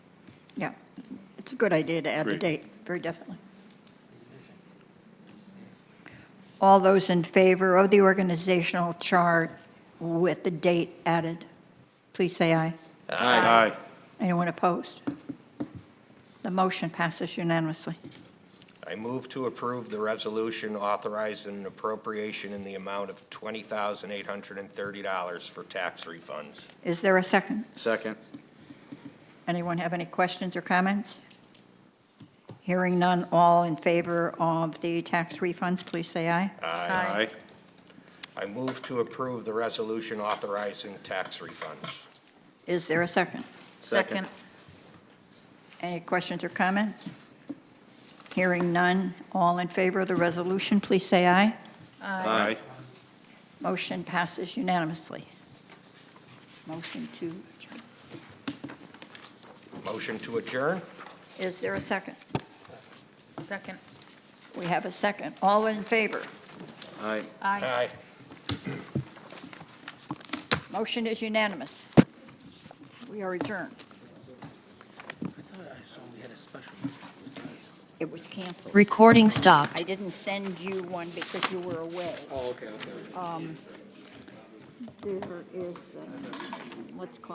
It's a good idea to add the Great. date, very definitely. All those in favor of the organizational chart with the date added, please say aye. Aye. Anyone opposed? The motion passes unanimously. I move to approve the resolution authorizing an appropriation in the amount of $20,830 for tax refunds. Is there a second? Second. Anyone have any questions or comments? Hearing none, all in favor of the tax refunds, please say aye. Aye. I move to approve the resolution authorizing tax refunds. Is there a second? Second. Any questions or comments? Hearing none, all in favor of the resolution, please say aye. Aye. Motion passes unanimously. Motion to adjourn. Motion to adjourn? Is there a second? Second. We have a second. All in favor? Aye. Aye. Aye. Motion is unanimous. We are adjourned. I thought I saw we had a special. It was canceled. Recording stopped. I didn't send you one because you were away. Um, Oh, okay, okay. There is, uh, let's call